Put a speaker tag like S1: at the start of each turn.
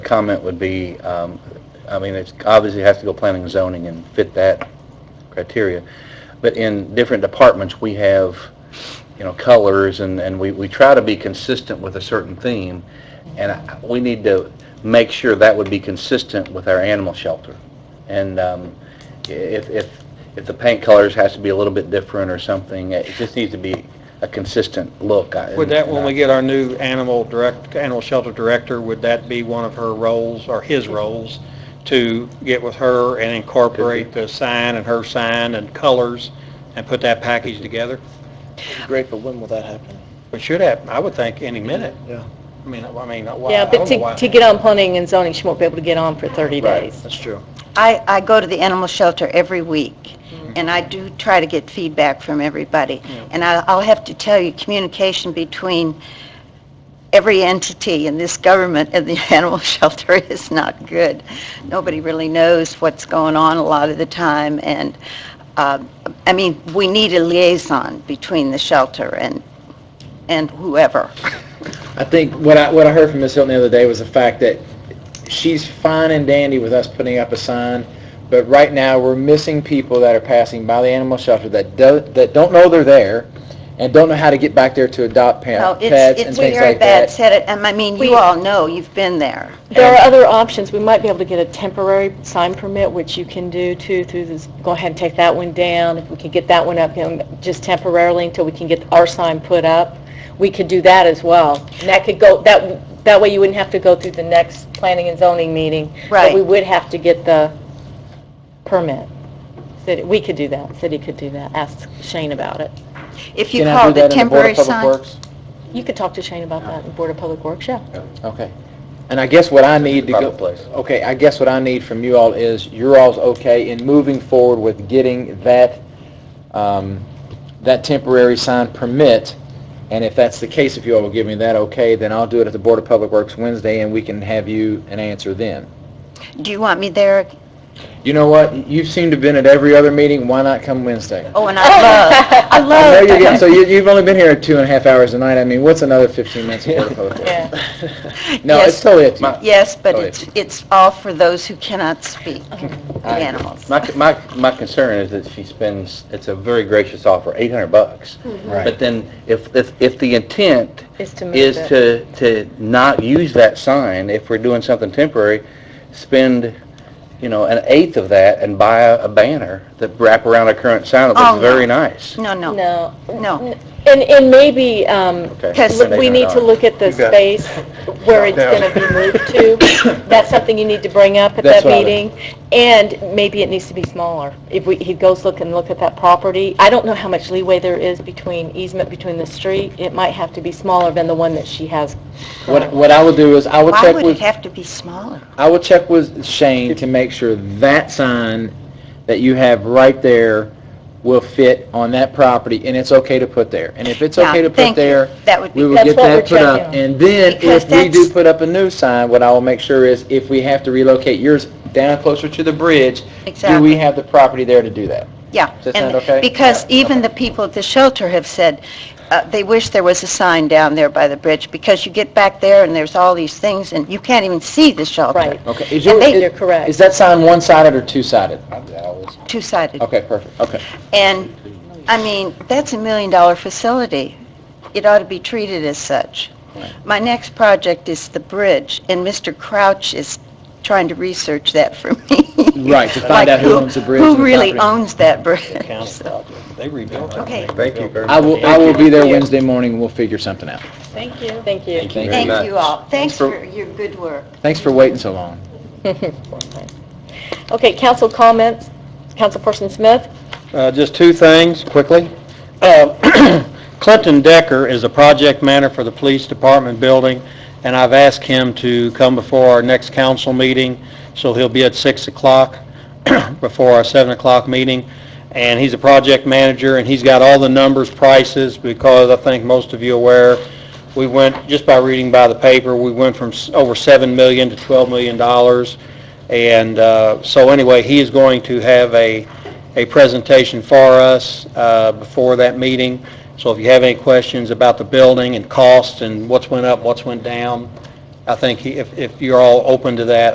S1: comment would be, um, I mean, it's, obviously has to go planning and zoning and fit that criteria. But in different departments, we have, you know, colors and, and we, we try to be consistent with a certain theme. And I- we need to make sure that would be consistent with our animal shelter. And, um, if, if, if the paint colors has to be a little bit different or something, it just needs to be a consistent look. I-
S2: Would that, when we get our new animal direct, animal shelter director, would that be one of her roles, or his roles, to get with her and incorporate the sign and her sign and colors and put that package together?
S3: Great, but when will that happen?
S2: It should happen, I would think, any minute.
S3: Yeah,
S2: I mean, I mean, why-
S4: Yeah,
S2: I
S4: but
S2: don't know
S4: to,
S2: why.
S4: to get on planning and zoning, she won't be able to get on for 30 days.
S3: that's true.
S5: I, I go to the animal shelter every week,
S3: Mm-hmm.
S5: and I do try to get feedback from everybody. And I, I'll have to tell you, communication between every entity in this government and the animal shelter is not good. Nobody really knows what's going on a lot of the time, and, uh, I mean, we need a liaison between the shelter and, and whoever.
S3: I think what I, what I heard from Ms. Hilton the other day was the fact that she's fine and dandy with us putting up a sign, but right now, we're missing people that are passing by the animal shelter that do, that don't know they're there and don't know how to get back there to adopt
S5: No,
S3: pa-
S5: Oh, it's,
S3: pets and
S5: it's
S3: things
S5: very
S3: like
S5: bad,
S3: that.
S5: said it, and I mean, you
S4: We-
S5: all know, you've been there.
S4: There are other options. We might be able to get a temporary sign permit, which you can do too, through this, go ahead and take that one down. If we could get that one up, you know, just temporarily until we can get our sign put up, we could do that as well. And that could go, that, that way you wouldn't have to go through the next planning and zoning meeting. But
S5: Right.
S4: we would have to get the permit. City, we could do that. City could do that. Ask Shane about it.
S5: If you
S3: Can I
S5: call
S3: do
S5: the
S3: that in the Board
S5: temporary
S3: of Public
S5: sign...
S3: Works?
S4: You could talk to Shane about that in Board of Public Works, yeah.
S3: Okay. And I guess what I need to
S1: Private
S3: go,
S1: place.
S3: okay, I guess what I need from you all is, you're all's okay in moving forward with getting that, um, that temporary sign permit, and if that's the case, if you all will give me that okay, then I'll do it at the Board of Public Works Wednesday, and we can have you an answer then.
S5: Do you want me there?
S3: You know what? You seem to have been at every other meeting, why not come Wednesday?
S5: Oh, and I love, I
S3: I know
S5: love
S3: you're getting, so you- you've only been here two and a half hours tonight, I mean, what's another 15 minutes of Board of Public Works?
S4: Yeah.
S3: No, it's
S5: Yes.
S3: totally up to you.
S5: Yes, but
S3: Oh, yeah.
S5: it's, it's all for those who cannot speak, the animals.
S1: My, my, my concern is that she spends, it's a very gracious offer, 800 bucks.
S3: Right.
S1: But then if, if, if the intent
S4: Is to move
S1: is
S4: it.
S1: to, to not use that sign, if we're doing something temporary, spend, you know, an eighth of that and buy a a banner that wrap around a current sign that
S5: Oh,
S1: looks
S5: no.
S1: very nice.
S5: No, no,
S4: No.
S5: no.
S4: And, and maybe, um,
S1: Okay.
S5: Yes.
S4: look, we need to look at the
S1: You got
S4: space where it's going to be moved to. That's something you need to bring up at
S3: That's
S4: that
S3: what I would-
S4: meeting. And maybe it needs to be smaller. If we, he goes look and look at that property, I don't know how much leeway there is between easement between the street. It might have to be smaller than the one that she has.
S3: What, what I will do is, I will
S5: Why
S3: check
S5: would it
S3: with,
S5: have to be smaller?
S3: I will check with Shane to make sure that sign that you have right there will fit on that property, and it's okay to put there. And if it's
S5: Yeah,
S3: okay to put
S5: thank you.
S3: there,
S5: That would
S3: we
S5: be,
S3: will
S4: That's
S3: get
S4: what
S3: that
S4: we're
S3: put up.
S4: checking.
S3: And then,
S5: Because
S3: if we do
S5: that's-
S3: put up a new sign, what I will make sure is, if we have to relocate yours down closer to the bridge, do
S5: Exactly.
S3: we have the property there to do that?
S5: yeah.
S3: Does that
S5: and-
S3: sound okay?
S5: Because even the people at the shelter have said, uh, they wish there was a sign down there by the bridge, because you get back there and there's all these things, and you can't even see the shelter.
S4: Right.
S3: Okay. Is
S5: And
S3: your-
S5: they-
S3: is-
S4: You're correct.
S3: Is that sign one-sided or two-sided?
S5: Two-sided.
S3: Okay, perfect, okay.
S5: And, I mean, that's a million-dollar facility. It ought to be treated as such. My next project is the bridge, and Mr. Crouch is trying to research that for me.
S3: Right, to find
S5: Like,
S3: out who owns the bridge and
S5: Who
S3: the
S5: really
S3: property.
S5: owns that bridge?
S2: Council project. They rebuilt it.
S5: Okay.
S1: Thank you very much.
S3: I will, I will be there Wednesday morning, we'll figure something out.
S4: Thank you. Thank you.
S3: Thank you.
S5: Thank you all. Thanks
S3: for-
S5: for your good work.
S3: Thanks for waiting so long.
S4: Okay, council comments. Councilperson Smith?
S2: Uh, Just two things, quickly. Uh, Clinton Decker is the project manager for the police department building, and I've asked him to come before our next council meeting, so he'll be at 6 o'clock before our 7 o'clock meeting. And he's a project manager, and he's got all the numbers, prices, because I think most of you are aware, we went, just by reading by the paper, we went from s- over 7 million to 12 million dollars. And uh, so anyway, he is going to have a, a presentation for us uh, before that meeting. So if you have any questions about the building and costs and what's went up, what's went down, I think he- if if you're all open to that,